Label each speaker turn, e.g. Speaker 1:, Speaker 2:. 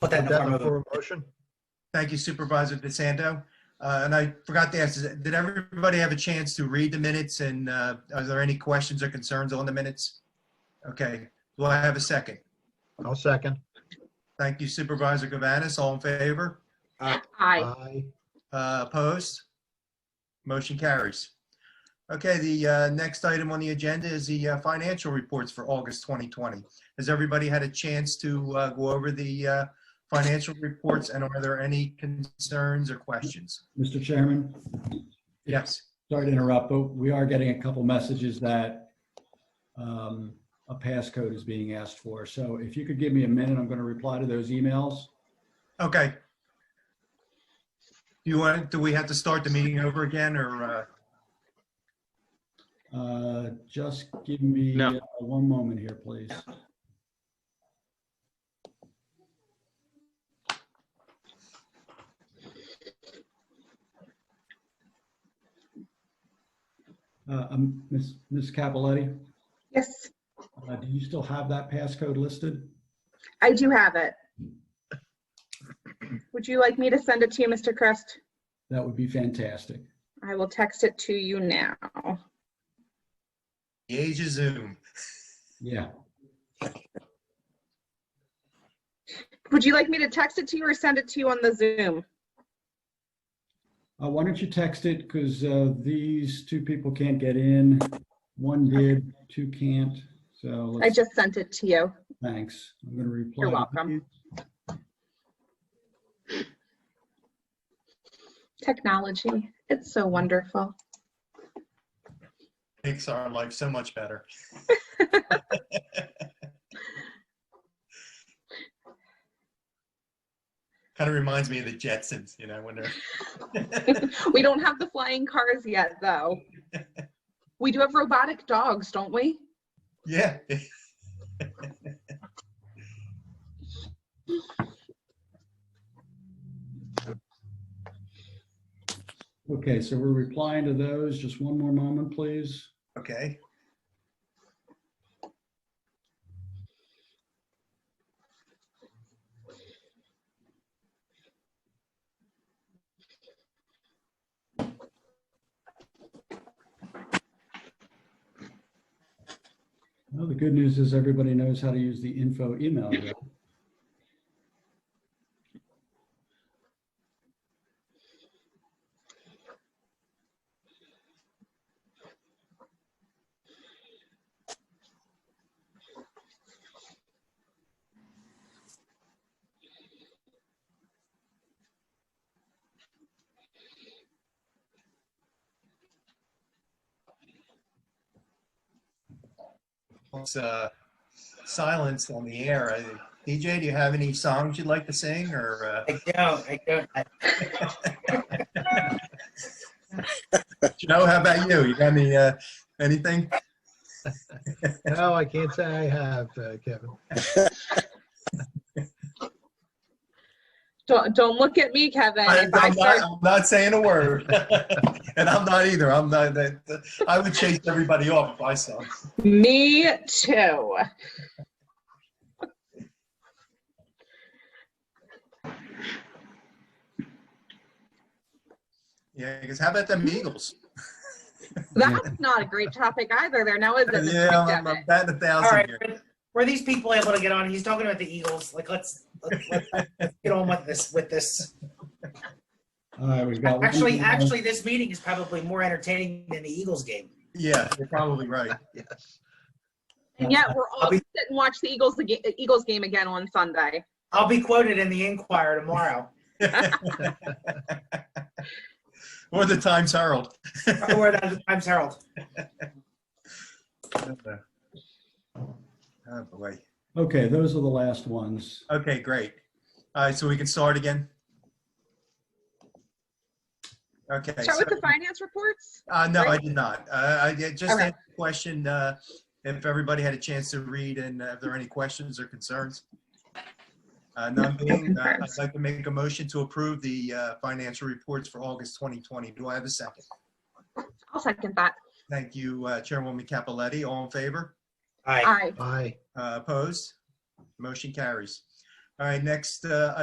Speaker 1: Put that in the
Speaker 2: That
Speaker 1: form of,
Speaker 2: before
Speaker 1: a-
Speaker 2: a motion?
Speaker 3: Thank you Supervisor DeSanto. Uh, And I forgot to ask, is- did everybody have a chance to read the minutes and uh, are there any questions or concerns on the minutes? Okay, do I have a second?
Speaker 2: I'll second.
Speaker 3: Thank you Supervisor Gavanis, all in favor?
Speaker 4: Aye.
Speaker 2: Aye.
Speaker 3: Uh, Opposed? Motion carries. Okay, the uh, next item on the agenda is the uh, financial reports for August 2020. Has everybody had a chance to uh, go over the uh, financial reports and are there any concerns or questions?
Speaker 5: Mr. Chairman,
Speaker 3: Yes,
Speaker 5: sorry to interrupt, but we are getting a couple messages that um, a passcode is being asked for. So if you could give me a minute, I'm going to reply to those emails.
Speaker 3: okay. Do you want, do we have to start the meeting over again or? uh,
Speaker 5: Uh, Just give me
Speaker 6: No.
Speaker 5: uh, one moment here, please. Uh, um, Ms. Ms. Capoletti,
Speaker 4: Yes,
Speaker 5: uh, do you still have that passcode listed?
Speaker 4: I do have it. Would you like me to send it to you, Mr. Crest?
Speaker 5: That would be fantastic.
Speaker 4: I will text it to you now.
Speaker 3: The age of Zoom.
Speaker 5: Yeah,
Speaker 4: Would you like me to text it to you or send it to you on the Zoom?
Speaker 5: Uh, why don't you text it, because, uh, these two people can't get in, one did, two can't, so.
Speaker 4: I
Speaker 5: let's-
Speaker 4: just sent it to you.
Speaker 5: Thanks, I'm gonna reply.
Speaker 4: You're
Speaker 5: to
Speaker 4: welcome.
Speaker 5: these.
Speaker 4: Technology, it's so wonderful.
Speaker 3: Makes our life so much better. Kind of reminds me of the Jetsons, you know, when they're.
Speaker 4: We don't have the flying cars yet, though. We do have robotic dogs, don't we?
Speaker 3: Yeah.
Speaker 5: Okay, so we're replying to those, just one more moment, please.
Speaker 3: Okay.
Speaker 5: Well, the good news is everybody knows how to use the info email. address.
Speaker 3: It's uh, silence on the air. I- DJ, do you have any songs you'd like to sing or? uh,
Speaker 7: I don't, I don't. I-
Speaker 3: Joe, how about you? You got any, uh, anything?
Speaker 2: No, I can't say I have, uh, Kevin.
Speaker 4: Don't, don't look at me, Kevin.
Speaker 3: I-
Speaker 4: If I
Speaker 3: I'm not,
Speaker 4: start,
Speaker 3: I'm not saying a word. And I'm not either. I'm not, that- that- I would chase everybody off if I saw.
Speaker 4: me too.
Speaker 3: Yeah, because how about them Eagles?
Speaker 4: That's not a great topic either there now, is it? This
Speaker 3: Yeah, I'm,
Speaker 4: pandemic?
Speaker 3: I'm batting a
Speaker 7: All
Speaker 3: thousand
Speaker 7: right,
Speaker 3: here.
Speaker 7: were- were these people able to get on? He's talking about the Eagles. Like, let's, let's, let's get on with this, with this.
Speaker 5: All right, we've got. one
Speaker 7: Actually,
Speaker 5: more.
Speaker 7: actually, this meeting is probably more entertaining than the Eagles game.
Speaker 3: Yeah, you're probably right.
Speaker 2: Yes.
Speaker 4: And yet we're all
Speaker 7: I'll be-
Speaker 4: sit and watch the Eagles the ga- Eagles game again on Sunday.
Speaker 7: I'll be quoted in the Inquirer tomorrow.
Speaker 3: Or the Times Herald.
Speaker 7: Or the Times Herald.
Speaker 3: Oh, boy.
Speaker 5: Okay, those are the last ones.
Speaker 3: Okay, great. All right, so we can start again? Okay.
Speaker 4: Start
Speaker 3: so-
Speaker 4: with the finance reports.
Speaker 3: Uh, no, I
Speaker 4: Right?
Speaker 3: did not. Uh, I did just
Speaker 4: Okay.
Speaker 3: had a question, uh, if everybody had a chance to read and uh, if there are any questions or concerns. Uh, none being, uh, I'd
Speaker 4: concerns.
Speaker 3: like to make a motion to approve the, uh, financial reports for August 2020. Do I have a second?
Speaker 4: I'll second that.
Speaker 3: Thank you, uh, Chairwoman Capoletti. All in favor?
Speaker 7: All right.
Speaker 4: Aye.
Speaker 2: Aye.
Speaker 3: Uh, opposed? Motion carries. All right, next uh,